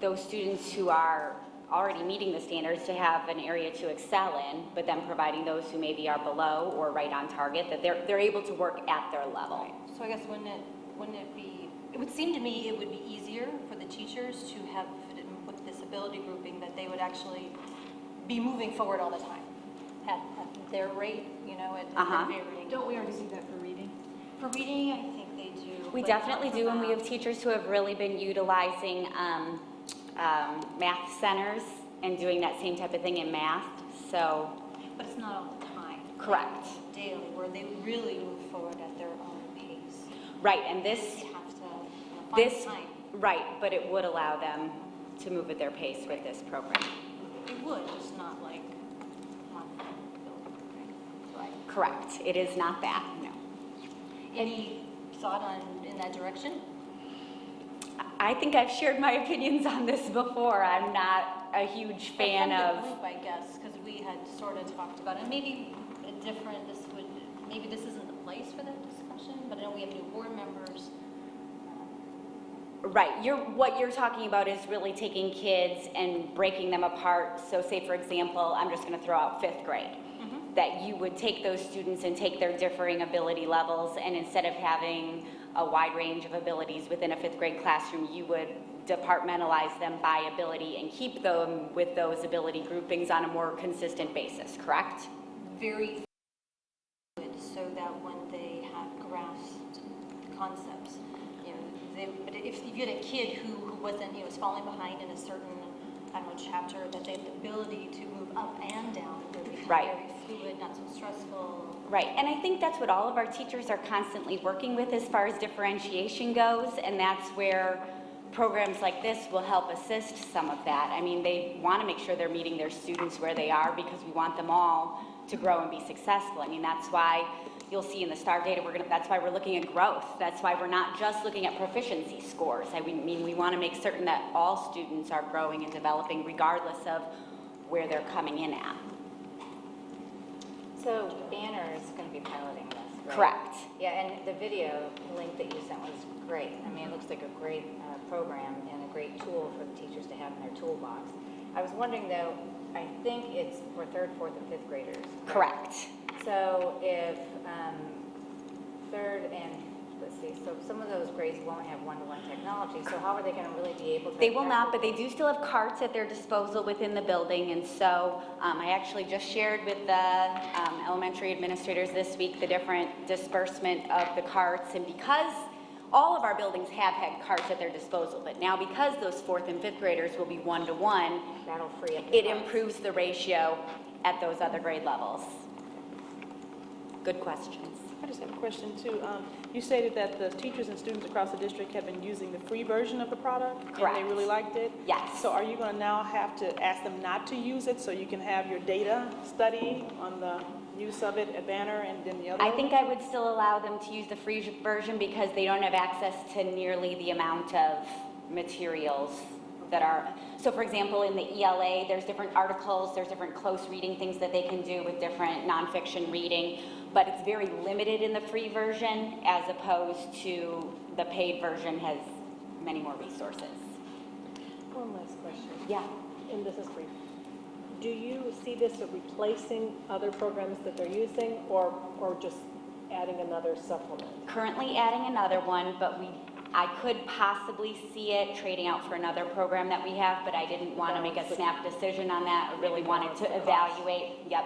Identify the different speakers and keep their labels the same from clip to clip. Speaker 1: those students who are already meeting the standards to have an area to excel in, but then providing those who maybe are below or right on target, that they're, they're able to work at their level.
Speaker 2: So I guess wouldn't it, wouldn't it be, it would seem to me it would be easier for the teachers to have it in with this ability grouping that they would actually be moving forward all the time at, at their rate, you know, at
Speaker 1: Uh-huh.
Speaker 2: at varying.
Speaker 3: Don't we already do that for reading?
Speaker 2: For reading, I think they do.
Speaker 1: We
Speaker 2: but
Speaker 1: definitely
Speaker 2: not
Speaker 1: do,
Speaker 2: for
Speaker 1: and we
Speaker 2: math.
Speaker 1: have teachers who have really been utilizing um, um, math centers and doing that same type of thing in math, so,
Speaker 2: But it's not all the time.
Speaker 1: correct.
Speaker 2: Daily, where they really move forward at their own pace.
Speaker 1: Right, and this,
Speaker 2: They have to find
Speaker 1: this,
Speaker 2: time.
Speaker 1: right, but it would allow them to move at their pace with this program.
Speaker 2: It would, just not like monthly building, right?
Speaker 1: Correct, it is not that, no.
Speaker 2: Any thought on, in that direction?
Speaker 1: I think I've shared my opinions on this before. I'm not a huge fan
Speaker 2: Like the
Speaker 1: of,
Speaker 2: group, I guess, because we had sort of talked about, and maybe a different, this would, maybe this isn't the place for that discussion, but I know we have new board members.
Speaker 1: right, you're, what you're talking about is really taking kids and breaking them apart. So say, for example, I'm just gonna throw out fifth grade. That you would take those students and take their differing ability levels, and instead of having a wide range of abilities within a fifth grade classroom, you would departmentalize them by ability and keep them with those ability groupings on a more consistent basis, correct?
Speaker 2: Very fluid, so that when they have grasped concepts, you know, they, but if you had a kid who, who wasn't, you know, was falling behind in a certain, I don't know, chapter, that they have the ability to move up and down, it would become
Speaker 1: Right.
Speaker 2: very fluid, not so stressful.
Speaker 1: Right, and I think that's what all of our teachers are constantly working with as far as differentiation goes, and that's where programs like this will help assist some of that. I mean, they want to make sure they're meeting their students where they are because we want them all to grow and be successful. I mean, that's why you'll see in the STAR data, we're gonna, that's why we're looking at growth. That's why we're not just looking at proficiency scores. I mean, we want to make certain that all students are growing and developing regardless of where they're coming in at.
Speaker 4: So Banner is going to be piloting this, right?
Speaker 1: Correct.
Speaker 4: Yeah, and the video link that you sent was great. I mean, it looks like a great uh, program and a great tool for the teachers to have in their toolbox. I was wondering though, I think it's for third, fourth, and fifth graders.
Speaker 1: Correct.
Speaker 4: So if um, third and, let's see, so some of those grades won't have one-to-one technology, so how are they going to really be able to?
Speaker 1: They will not, but
Speaker 4: effectively-
Speaker 1: they do still have carts at their disposal within the building, and so um, I actually just shared with the um, elementary administrators this week the different disbursement of the carts, and because all of our buildings have had carts at their disposal, but now because those fourth and fifth graders will be one-to-one,
Speaker 4: That'll free up. the
Speaker 1: it
Speaker 4: class.
Speaker 1: improves the ratio at those other grade levels. Good questions.
Speaker 5: I just have a question too. Um, You stated that the teachers and students across the district have been using the free version of the product? And
Speaker 1: Correct.
Speaker 5: they really liked it?
Speaker 1: Yes.
Speaker 5: So are you going to now have to ask them not to use it so you can have your data study on the use of it at Banner and then the other?
Speaker 1: I think I would still allow them to use the free version because they don't have access to nearly the amount of materials that are, so for example, in the ELA, there's different articles, there's different close reading things that they can do with different nonfiction reading, but it's very limited in the free version as opposed to the paid version has many more resources.
Speaker 6: One last question,
Speaker 1: Yeah.
Speaker 6: and this is brief. Do you see this as replacing other programs that they're using or, or just adding another supplement?
Speaker 1: Currently adding another one, but we, I could possibly see it trading out for another program that we have, but I didn't want to make a snap decision on that. I really wanted to evaluate, yep,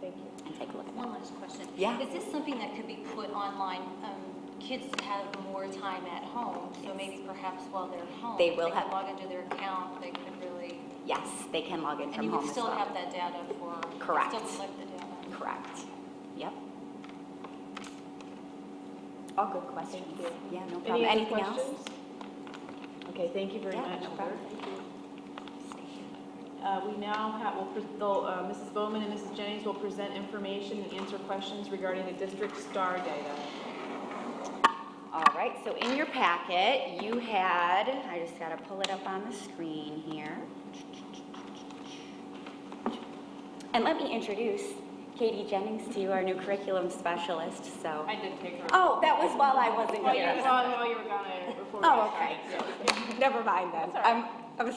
Speaker 6: Thank you.
Speaker 1: and take a look at that.
Speaker 2: One last question.
Speaker 1: Yeah.
Speaker 2: Is this something that could be put online? Um, Kids have more time at home, so maybe perhaps while they're home.
Speaker 1: They will
Speaker 2: They
Speaker 1: have-
Speaker 2: can log into their account, they could really,
Speaker 1: Yes, they can log in
Speaker 2: and
Speaker 1: from
Speaker 2: you would
Speaker 1: home as
Speaker 2: still have
Speaker 1: well.
Speaker 2: that data for. you could
Speaker 1: Correct.
Speaker 2: Still collect the data.
Speaker 1: Correct, yep. All good questions. Yeah, no problem.
Speaker 6: Any other
Speaker 1: Anything else?
Speaker 6: questions?
Speaker 3: Okay, thank you very
Speaker 1: Yeah,
Speaker 3: much.
Speaker 1: no
Speaker 3: Heather.
Speaker 1: problem.
Speaker 3: Uh, We now have, will pres- they'll, uh, Mrs. Bowman and Mrs. Jennings will present information and answer questions regarding the district STAR data.
Speaker 1: All right, so in your packet, you had, I just gotta pull it up on the screen here. And let me introduce Katie Jennings to you, our new curriculum specialist, so.
Speaker 3: I did take her.
Speaker 1: Oh, that was while I wasn't
Speaker 3: While you
Speaker 1: here.
Speaker 3: while- while you were gone, I, before we
Speaker 1: Oh,
Speaker 3: got
Speaker 1: okay.
Speaker 3: started.
Speaker 1: Never mind then. I'm,